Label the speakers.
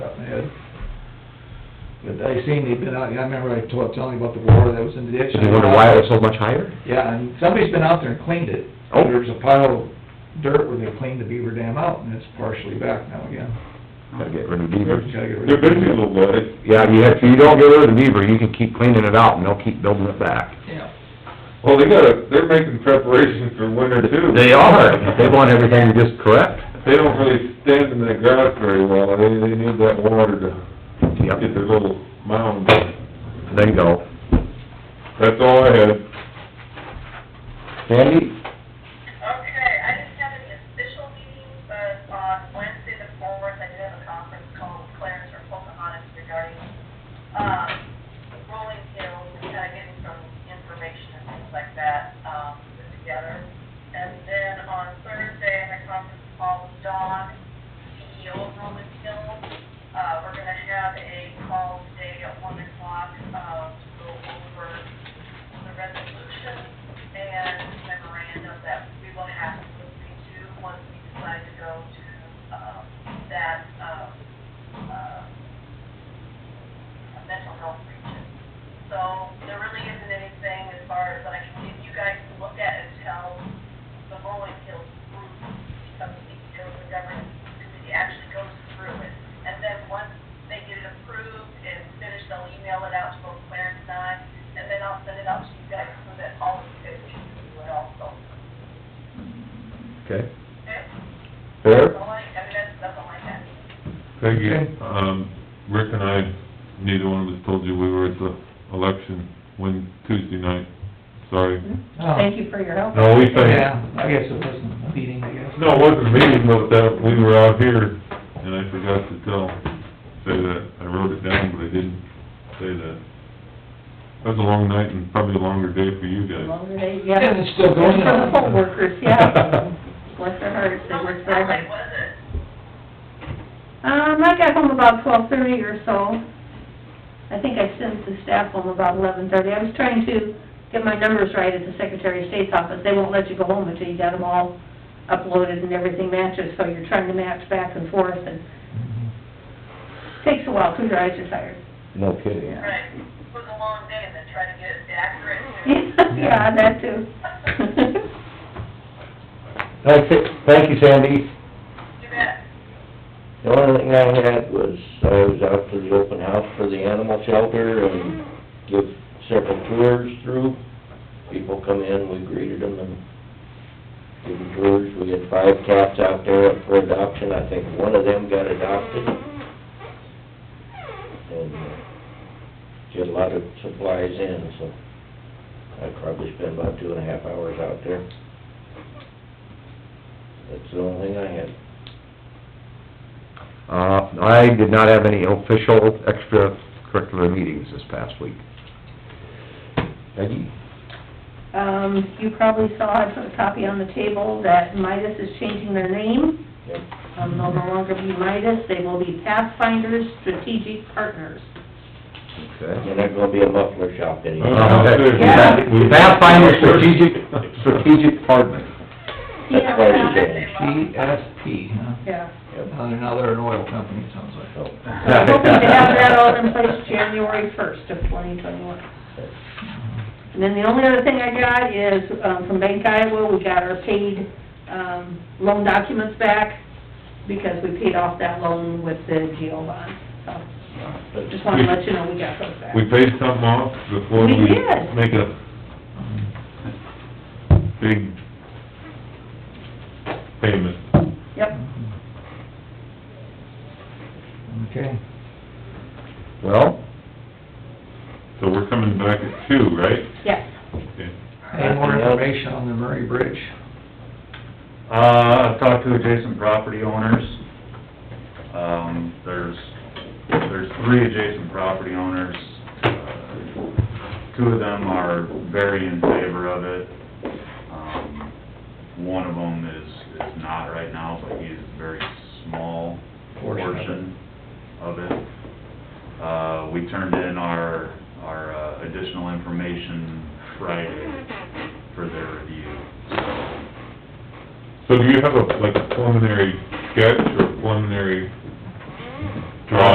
Speaker 1: But I seen they've been out, I remember I told, telling you about the water that was in the ditch.
Speaker 2: You wonder why it was so much higher?
Speaker 1: Yeah, and somebody's been out there and cleaned it.
Speaker 2: Oh.
Speaker 1: There's a pile of dirt where they cleaned the beaver dam out, and it's partially back now again.
Speaker 2: Gotta get rid of beavers.
Speaker 1: Gotta get rid of
Speaker 3: They're busy
Speaker 1: it.
Speaker 3: little guys.
Speaker 2: Yeah, you have, if you don't get rid of the beaver, you can keep cleaning it out and they'll keep building it back.
Speaker 1: Yeah.
Speaker 3: Well, they gotta, they're making preparations for winter too.
Speaker 2: They are, they want everything just correct.
Speaker 3: They don't really stand in the grass very well, they, they need that water to get
Speaker 2: Yep,
Speaker 3: their little mound.
Speaker 2: there you go.
Speaker 3: That's all I had.
Speaker 2: Sandy?
Speaker 4: Okay, I didn't have any official meetings, but on Wednesday the fourth, I did have a conference call with Clarence or Pocahontas regarding, um, rolling hills, and kind of getting some information and things like that, um, put together. And then on Thursday, I had a conference call with Don, CEO of Rolling Hills. Uh, we're gonna have a call today at one o'clock, um, to go over the resolution and memorandum that we will have to agree to once we decide to go to, um, that, um, uh, mental health region. So there really isn't anything as far as that I can give you guys to look at and tell the Rolling Hills group, because the Hills and Governance Committee actually goes through it. And then once they get it approved and finished, they'll email it out to both Clarence and I, and then I'll send it out to you guys so that all of you guys can do it also.
Speaker 2: Okay.
Speaker 4: Okay?
Speaker 2: Fair?
Speaker 4: That's all I, I mean, that's, that's all I have.
Speaker 3: Thank you.
Speaker 1: Okay.
Speaker 3: Um, Rick and I, neither one of us told you we were at the election when, Tuesday night. Sorry.
Speaker 1: Oh,
Speaker 5: Thank you for your help.
Speaker 3: No, we thank,
Speaker 1: Yeah, I guess it wasn't a meeting, I guess.
Speaker 3: no, it wasn't a meeting, but that, we were out here, and I forgot to tell, say that. I wrote it down, but I didn't say that. That was a long night and probably a longer day for you guys.
Speaker 5: Longer day, yeah.
Speaker 1: And it's still going
Speaker 5: For the
Speaker 1: on.
Speaker 5: poll workers, yeah. Bless their hearts, they work so
Speaker 4: How
Speaker 5: hard.
Speaker 4: late was it?
Speaker 5: Um, I got home about twelve thirty or so. I think I sent the staff home about eleven thirty. I was trying to get my numbers right at the Secretary of State's office. They won't let you go home until you got them all uploaded and everything matches, so you're trying to match back and forth, and
Speaker 1: Mm-hmm.
Speaker 5: takes a while, 'cause your eyes are tired.
Speaker 2: No kidding.
Speaker 5: Yeah.
Speaker 4: Right, it was a long day and then try to get it accurate.
Speaker 5: Yeah, that too.
Speaker 6: Thank you- Thank you, Sandy.
Speaker 4: You bet.
Speaker 6: The only thing I had was, I was out to the open house for the animal shelter and give several tours through. People come in, we greeted them and gave them tours. We had five cats out there up for adoption. I think one of them got adopted. And uh, get a lot of supplies in, so I probably spent about two and a half hours out there. That's the only thing I had.
Speaker 2: Uh, I did not have any official extracurricular meetings this past week. Peggy?
Speaker 5: Um, you probably saw, I put a copy on the table, that Midas is changing their name.
Speaker 6: Yep.
Speaker 5: Um, they'll no longer be Midas, they will be Pathfinders Strategic Partners.
Speaker 2: Okay.
Speaker 6: You're not gonna be a muffler shop anymore.
Speaker 2: Uh-huh.
Speaker 5: Yeah.
Speaker 2: Okay. Pathfinder Strategic, Strategic Partner.
Speaker 6: That's why you
Speaker 4: Yeah.
Speaker 1: GSP, huh?
Speaker 5: Yeah.
Speaker 1: Now they're, now they're an oil company, it sounds like.
Speaker 5: I'm hoping to have that all in place January first of twenty twenty-one. And then the only other thing I got is, um, from Bank Iowa, we got our paid, um, loan documents back because we paid off that loan with the GO bond, so just wanted to let you know we got those back.
Speaker 3: We paid something off before
Speaker 5: We
Speaker 3: we
Speaker 5: did.
Speaker 3: make a big payment.
Speaker 5: Yep.
Speaker 1: Okay.
Speaker 2: Well,
Speaker 3: So we're coming back at two, right?
Speaker 5: Yes.
Speaker 3: Okay.
Speaker 1: Any more information on the Murray Bridge?
Speaker 7: Uh, I've talked to adjacent property owners. Um, there's, there's three adjacent property owners. Uh, Two of them are very in favor of it. Um, One of them is, is not right now, but he's a very small
Speaker 1: Portion of it.
Speaker 7: portion of it. Uh, we turned in our, our uh, additional information Friday for their review, so
Speaker 3: So do you have a, like a preliminary sketch or preliminary